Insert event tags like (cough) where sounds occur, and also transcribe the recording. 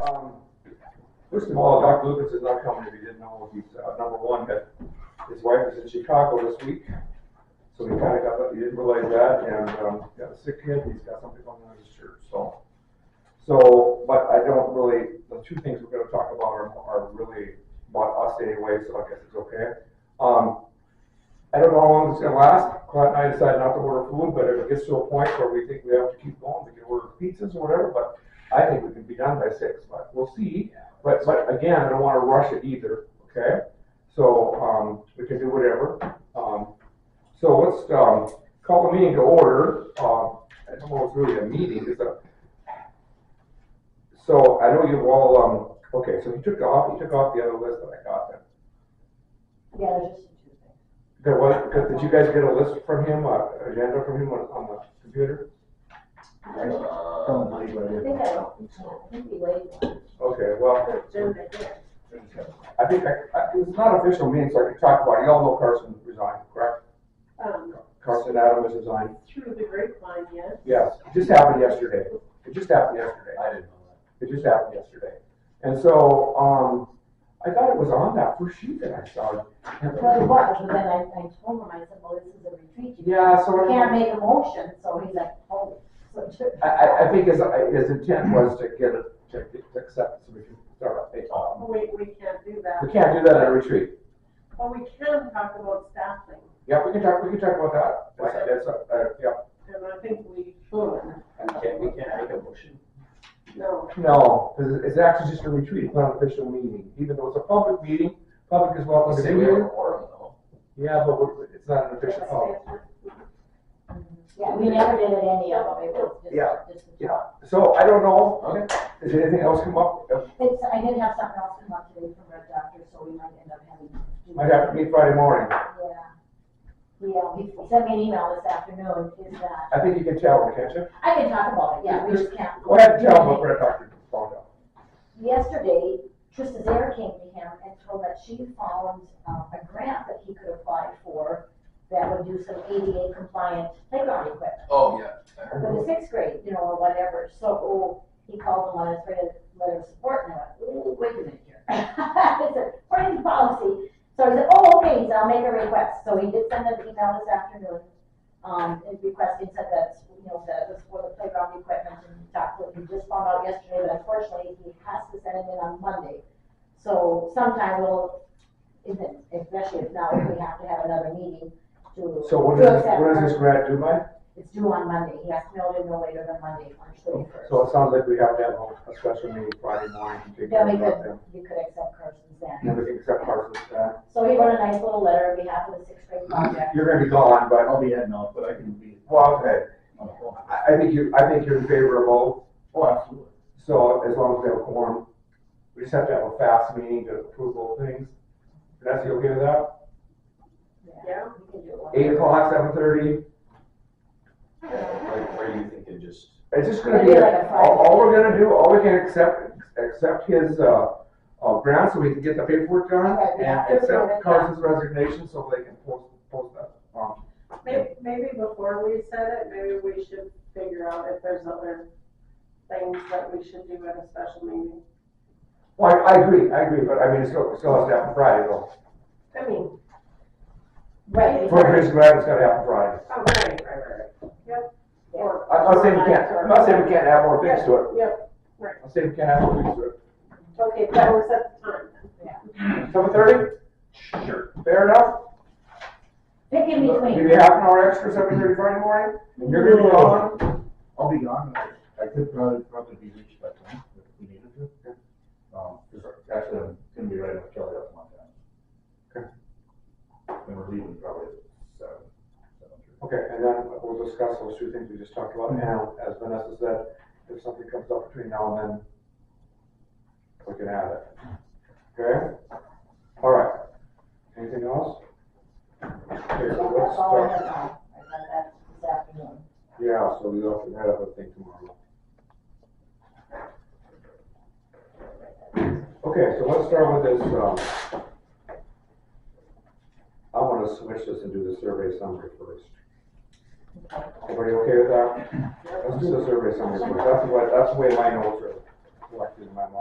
um, first of all, Doc Lucas is not coming if you didn't know. He's, uh, number one, but his wife is in Chicago this week. So he kinda got, he didn't realize that and, um, got a sick kid. He's got something going on in his church, so. So, but I don't really, the two things we're gonna talk about are, are really about us anyway, so I guess it's okay. Um, I don't know how long this is gonna last. Clint and I decided not to order food, but if it gets to a point where we think we have to keep going, we can order pizzas or whatever, but I think we can be done by six, but we'll see. But, but again, I don't wanna rush it either, okay? So, um, we can do whatever. Um, so let's, um, call the meeting to order. Um, I don't know if it's really a meeting, it's a. So I know you've all, um, okay, so he took off, he took off the other list that I got then. Yeah, there's just two things. There was, did you guys get a list from him, uh, agenda from him on, on the computer? Don't believe I it. think I don't, I think we laid one. Okay, well, There's right there. I think, I, I- it's not official meeting, so I can talk about, it. y'all know Carson resigned, correct? Um, Carson Adams resigned, through the grapevine, yes. yes, it just happened yesterday, it just happened yesterday. I didn't know It just happened yesterday. And so, um, I thought it was on that first sheet that I saw. Well, it was, but then I, I told him, I said, well, this is a retreat, you Yeah, so. I- can't make a motion, so he's like, oh. so (laughs) took- I, I, I think his, his intent was to get it, to, to accept, so we can start a, um, We, Oh, we can't do that. we can't do that at a retreat. But we can talk about staffing, Yeah, we can talk, we can talk about that. That's, that's, uh, uh, yeah. and I think we should. that. Can't, we can't make a motion. No, No, 'cause it's actually just a retreat, it's not an official meeting, even though it's a public meeting, public is welcome to Say be we have a here. quorum though. Yeah, but we're- it's not an official oh, public. Yeah, we never did it any of them, it was just. Yeah, just- yeah. So I don't know, does anything else come up? Uh, It's, I did have something else come up today from Red Doctor, so we might end up having. to do Might have to meet Friday morning. that. Yeah. Yeah, he sent me an email this afternoon, is that, I think you can tell, can't you? I can talk about it, yeah, we just can't. Go ahead and tell them what Red Doctor found out. yesterday, Trista Zare came to him and told that she found uh, a grant that he could apply for that would do some ADA compliant playground equipment Oh, yeah. for the sixth grade, you know, or whatever. So oh, he called and wanted us to write a letter of support, and I went, oh, wait a minute here. (laughs) I said, according to policy. So he said, oh, okay, he said, I'll make a request. So he did send an email this afternoon, um, and requesting said that, you know, that it was for the playground equipment and talked with, we just found out yesterday, but unfortunately, he has to send it in on Monday. So sometime we'll, if it- especially if now, if we have to have another meeting to. So what to is, this- accept what Monday. is this grant due by? It's due on Monday, he has to mail it in no later than Monday, March thirty-first. So it sounds like we have to have a special meeting Friday morning. to take care Then we of could, that. you could accept Carson's then. And we can accept Carson's, uh, So he wrote a nice little letter on behalf of the sixth grade Mm-hmm. project. you're gonna be gone, but, I'll be heading out, but I can be well, okay. on the phone. I, I think you, I think you're in favor of both. Oh, absolutely. So as long as we have a quorum, we just have to have a fast meeting to approve all things. Vanessa, you okay with that? yeah, We can do it one. Eight o'clock, seven thirty, Where, where do you think it just? it's just gonna be, Maybe like a Friday. all, all we're gonna do, all we can accept, accept his, uh, uh, grant so we can get the paperwork done Right, and yeah. accept Carson's resignation so they can post, post that. um, maybe, maybe before we set it, maybe we should figure out if there's other things that we should do at a special meeting. Well, I, I agree, I agree, but I mean, it still, it still has to happen Friday though. I mean, oh, Right, For because- his grant, it's gotta happen Friday. oh, right, right, right, right, yep. Or- I- I'm not saying we can't, I'm not saying we can't add more things to it, Yep, I'm saying we can't add more things to it. okay, that was at the time. Seven thirty, Sure. fair enough? pick in Maybe between. half an hour extra, seven thirty Friday morning, and you're gonna be gone. I'll be gone. I could probably, probably be reached by then if we needed to. Um, 'cause actually, I'm gonna be right up Kelly up Montana. And we're leaving probably at seven, seven thirty. Okay, and then we'll discuss those two things we just talked about now, as Vanessa said, if something comes up between now and then, we can add it. Okay? All right. Anything else? Okay, That's so let's all I start. have now. I got that this afternoon. Yeah, so we have to have a thing tomorrow. Okay, so let's start with this, um, I wanna switch this and do the survey summary first. Everybody okay with that? Let's do the survey summary first, that's what, that's the way my notes are collected in my mind.